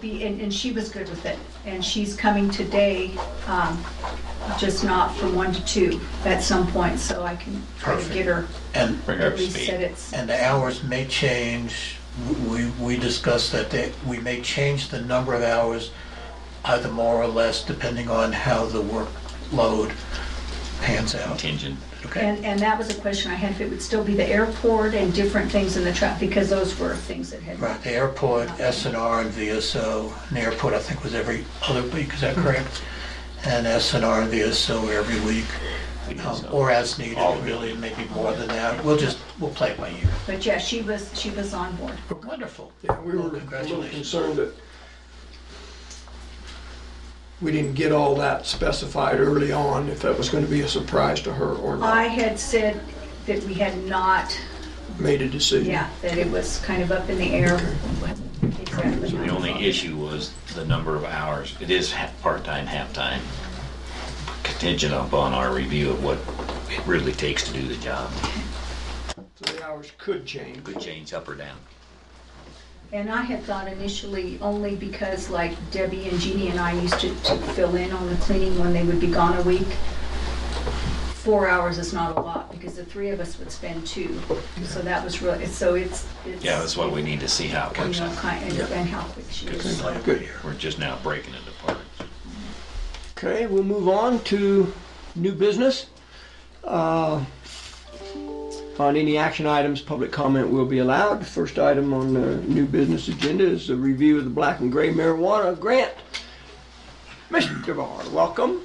Be- And, and she was good with it, and she's coming today, um, just not from one to two at some point, so I can try to Perfect. get her And, Bring her up at to least set speed. it. and the hours may change. We, we discussed that they- we may change the number of hours either more or less depending on how the workload pans out. Contingent. Okay? And, and that was a question I had, if it would still be the airport and different things in the truck, because those were things that had. Right, the airport, SNR and VSO, and the airport I think was every other week, is that Mm-hmm. correct? And SNR and VSO every week, um, or as needed, All of it. really, maybe more than that. We'll just, we'll play it by ear. But yeah, she was, she was on board. Wonderful. Yeah, we Well, were a little Congratulations. concerned that we didn't get all that specified early on, if that was gonna be a surprise to her or I not. had said that we had not, Made a decision. yeah, that it was kind of up in the air. Exactly. So the only issue was the number of hours. It is ha- part-time, half-time, contingent upon our review of what it really takes to do the job. So the hours could change. Could change up or down. And I had thought initially only because like Debbie and Jeannie and I used to to fill in on the cleaning when they would be gone a week. Four hours is not a lot because the three of us would spend two. So that was really, so it's, it's. Yeah, that's what we need to see how it You works know, out. kind, and and how quick she is. Play it by Good. ear. We're just now breaking it apart. Okay, we'll move on to new business. Uh, On any action items, public comment will be allowed. First item on the new business agenda is the review of the black and gray marijuana grant. Mr. Barr, welcome.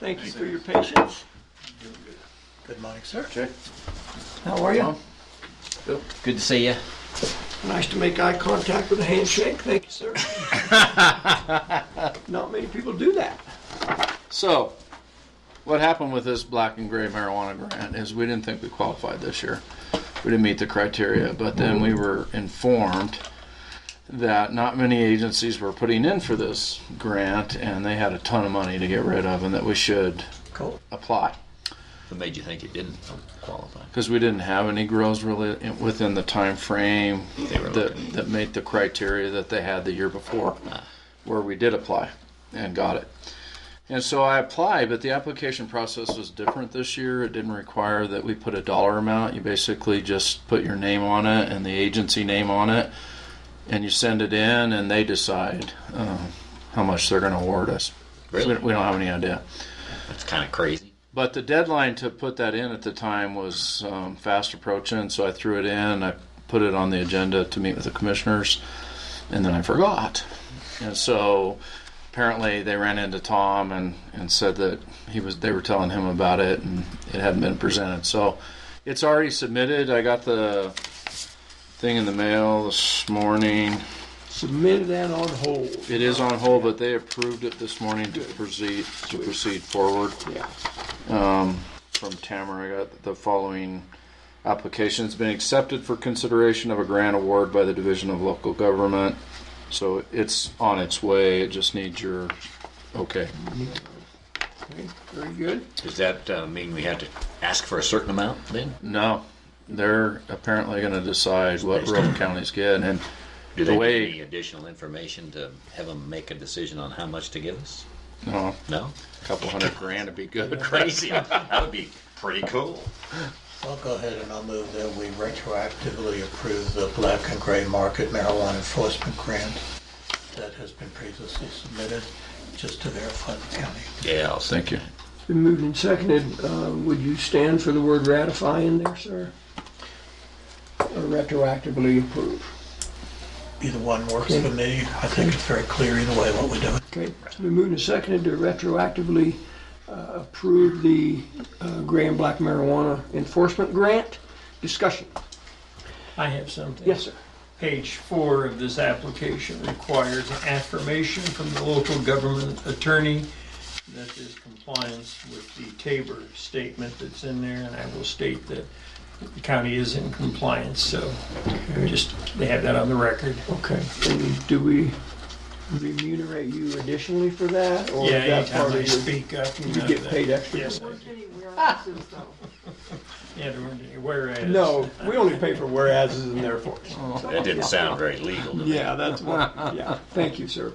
Thank you for your patience. Good morning, sir. How are you? Good to see you. Nice to make eye contact with a handshake. Thank you, sir. Not many people do that. So, what happened with this black and gray marijuana grant is we didn't think we qualified this year. We didn't meet the criteria, but then we were informed that not many agencies were putting in for this grant and they had a ton of money to get rid of and that we should Cool. apply What made you think it didn't qualify? because we didn't have any grows really in- within the time frame They were that, looking. Uh. that made the criteria that they had the year before where we did apply and got it and so i applied but the application process was different this year it didn't require that we put a dollar amount you basically just put your name on it and the agency name on it and you send it in and they decide um, how much they're going to award us So we Really? don't- we don't have any idea That's kind of crazy. but the deadline to put that in at the time was um, fast approaching, so I threw it in. I put it on the agenda to meet with the commissioners, and then I forgot. And so apparently they ran into Tom and, and said that he was they were telling him about it and it hadn't been presented. So it's already submitted. I got the thing in the mail this morning. Submitted and on hold. It is on hold, but they approved it this morning to proceed to proceed forward Yeah. from Tamara, I got the following application. It's been accepted for consideration of a grant award by the Division of Local Government. So it's on its way. It just needs your okay. Okay, Very good. Does that uh, mean we had to ask for a certain amount then? No, they're apparently going to decide what rural counties get. And Do The they way- need any additional information to have them make a decision on how much to give us? you know, No? a couple hundred grand would be good. Crazy. that would be pretty cool. I'll go ahead and I'll move that we retroactively approve the black and gray market marijuana enforcement grant that has been previously submitted, just to verify the county. Yeah, I'll Thank you. Been moved and seconded. Uh, Would you stand for the word ratify in there, sir? Or retroactively approve? Either one works for me. I think it's very clear either way what we're doing. Okay, it's been moved and seconded to retroactively uh, approve the uh, gray and black marijuana enforcement grant. Discussion. I have something. Yes, sir. Page four of this application requires an affirmation from the local government attorney that there's compliance with the Tabor statement that's in there, and I will state that the county is in compliance, so just, they have that on the record. Okay, and do we remunerate you additionally for that? Or Yeah, is that part anytime of I your- speak up. you You know get that. paid extra? Yes, I do. anywhere else is though. yeah, there weren't any whereas. No, we only pay for whereases and therefores. That didn't sound very legal to me. Yeah, that's what, yeah. Thank you, sir.